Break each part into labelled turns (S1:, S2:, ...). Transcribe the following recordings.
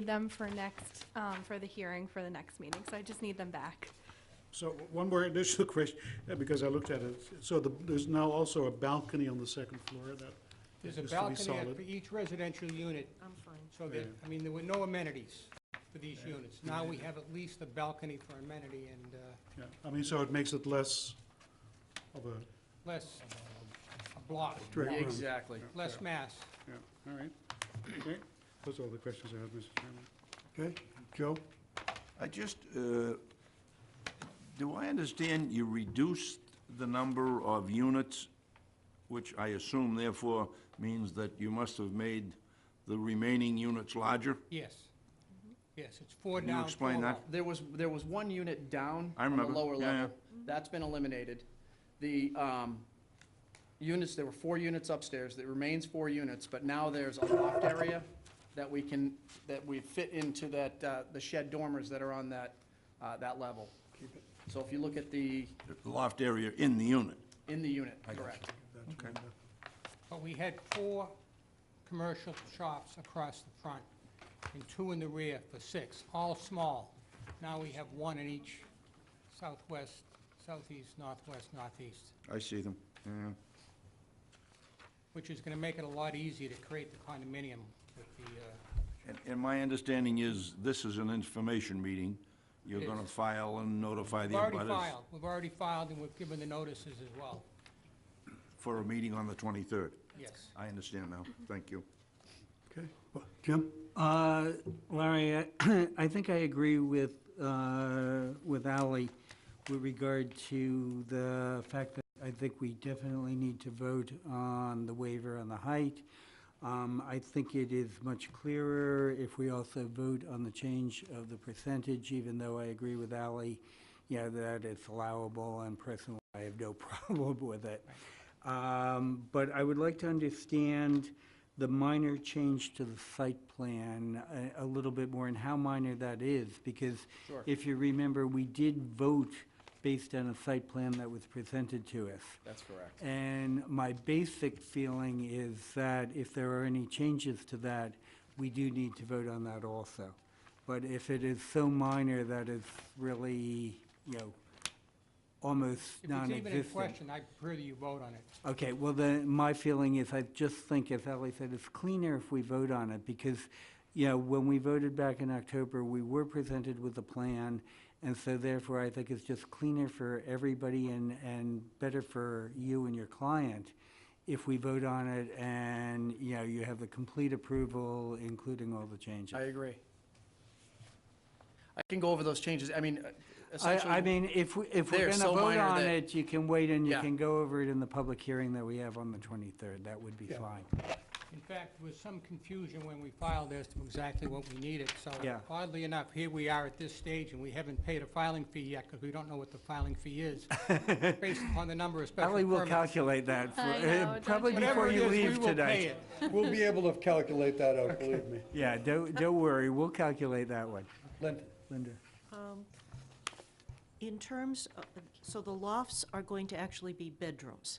S1: need them for next, um, for the hearing for the next meeting, so I just need them back.
S2: So one more additional question, uh, because I looked at it. So the- there's now also a balcony on the second floor that
S3: There's a
S2: used to be
S3: balcony at-
S2: solid.
S3: for each residential unit,
S1: I'm fine.
S3: so that,
S2: Yeah.
S3: I mean, there were no amenities for these units. Now we have at least a balcony for amenity and uh,
S2: Yeah, I mean, so it makes it less of a
S3: less a block,
S2: direct run.
S4: Exactly.
S3: less mass.
S2: Yeah, all right. Okay, those are all the questions I have, Mr. Chairman.
S5: Okay, Joe?
S4: I just, uh, do I understand you reduced the number of units, which I assume therefore means that you must have made the remaining units larger?
S3: Yes. Yes, it's four
S4: Can you
S3: down,
S4: explain
S3: four
S4: that?
S3: up.
S5: There was, there was one unit down
S4: I
S5: on the
S4: remember,
S5: lower
S4: yeah,
S5: level. That's been eliminated. The um, units, there were four units upstairs, there remains four units, but now there's a loft area that we can, that we fit into that, uh, the shed dormers that are on that, uh, that level. So if you look at the,
S4: The Loft area in the unit?
S5: in the unit,
S4: I got
S5: correct.
S4: Okay.
S3: But we had four commercial shops across the front and two in the rear for six, all small. Now we have one in each southwest, southeast, northwest, northeast,
S4: I see them, yeah.
S3: which is going to make it a lot easier to create the condominium with the, uh,
S4: And, and my understanding is, this is an information meeting. You're
S3: It
S4: gonna
S3: is.
S4: file and notify the
S3: We've already
S4: abutters
S3: filed, we've already filed, and we've given the notices as well,
S4: for a meeting on the twenty-third.
S3: yes.
S4: I understand now, thank you.
S5: Okay.
S6: Jim?
S7: Uh, Larry, I- I think I agree with, uh, with Ally with regard to the fact that I think we definitely need to vote on the waiver on the height. Um, I think it is much clearer if we also vote on the change of the percentage, even though I agree with Ally, you know, that it's allowable and personally, I have no problem with it. Um, But I would like to understand the minor change to the site plan uh, a, a little bit more and how minor that is, because
S5: Sure.
S7: if you remember, we did vote based on a site plan that was presented to us.
S5: That's correct.
S7: And my basic feeling is that if there are any changes to that, we do need to vote on that also. But if it is so minor that it's really, you know, almost
S3: If it's
S7: non-existent.
S3: even in question, I prefer that you vote on it.
S7: Okay, well, then, my feeling is, I just think, as Ellie said, it's cleaner if we vote on it, because, you know, when we voted back in October, we were presented with a plan, and so therefore, I think it's just cleaner for everybody and, and better for you and your client if we vote on it and, you know, you have the complete approval, including all the changes.
S5: I agree. I can go over those changes, I mean, uh,
S7: I,
S5: essentially.
S7: I mean, if, we- if
S5: They're
S7: we're gonna
S5: so
S7: vote
S5: minor
S7: on
S5: that-
S7: it, you can wait and you
S5: Yeah.
S7: can go over it in the public hearing that we have on the twenty-third, that would be fine.
S3: In fact, there was some confusion when we filed as to exactly what we needed, so
S7: Yeah.
S3: oddly enough, here we are at this stage, and we haven't paid a filing fee yet, because we don't know what the filing fee is, based upon the number of special
S7: Ellie will
S3: permits.
S7: calculate that, for-
S1: I
S7: uh,
S1: know, don't
S7: probably
S1: you
S3: Whatever
S7: before
S3: it
S7: you
S3: is, we
S7: leave
S3: will pay
S7: tonight.
S3: it.
S6: We'll be able to calculate that out, believe me.
S7: Yeah, don't, don't worry, we'll calculate that one.
S6: Linda?
S7: Linda?
S8: In terms, of- so the lofts are going to actually be bedrooms.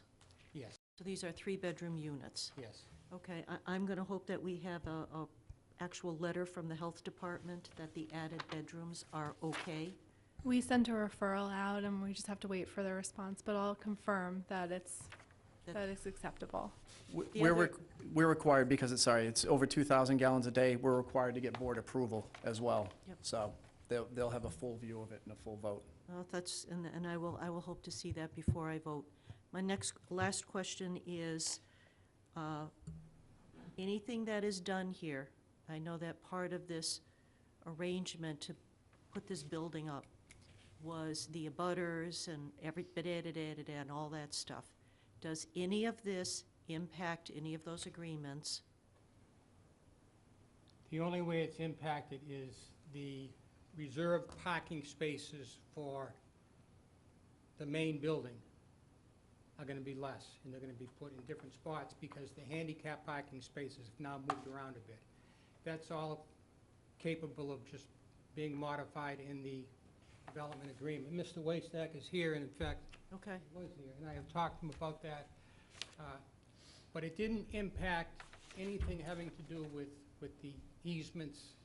S3: Yes,
S8: So these are three-bedroom units.
S3: yes.
S8: Okay, I- I'm going to hope that we have a, a actual letter from the health department that the added bedrooms are okay.
S1: We sent a referral out and we just have to wait for the response, but I'll confirm that it's,
S8: That-
S1: that it's acceptable.
S5: W-
S8: The
S5: We're,
S8: other-
S5: req- we're required, because it's, sorry, it's over 2,000 gallons a day, we're required to get board approval as well.
S8: Yep.
S5: So they'll, they'll have a full view of it and a full vote.
S8: Well, that's, and, and I will, I will hope to see that before I vote. My next, last question is, uh, anything that is done here, I know that part of this arrangement to put this building up was the abutters and every, da-da-da-da-da and all that stuff. Does any of this impact any of those agreements?
S3: The only way it's impacted is the reserved parking spaces for the main building are gonna be less, and they're gonna be put in different spots because the handicap parking spaces have now moved around a bit. That's all capable of just being modified in the development agreement. Mr. Wastack is here, and in fact,
S8: Okay,
S3: he was here, and I have talked to him about that. uh, But it didn't impact anything having to do with, with the easements uh,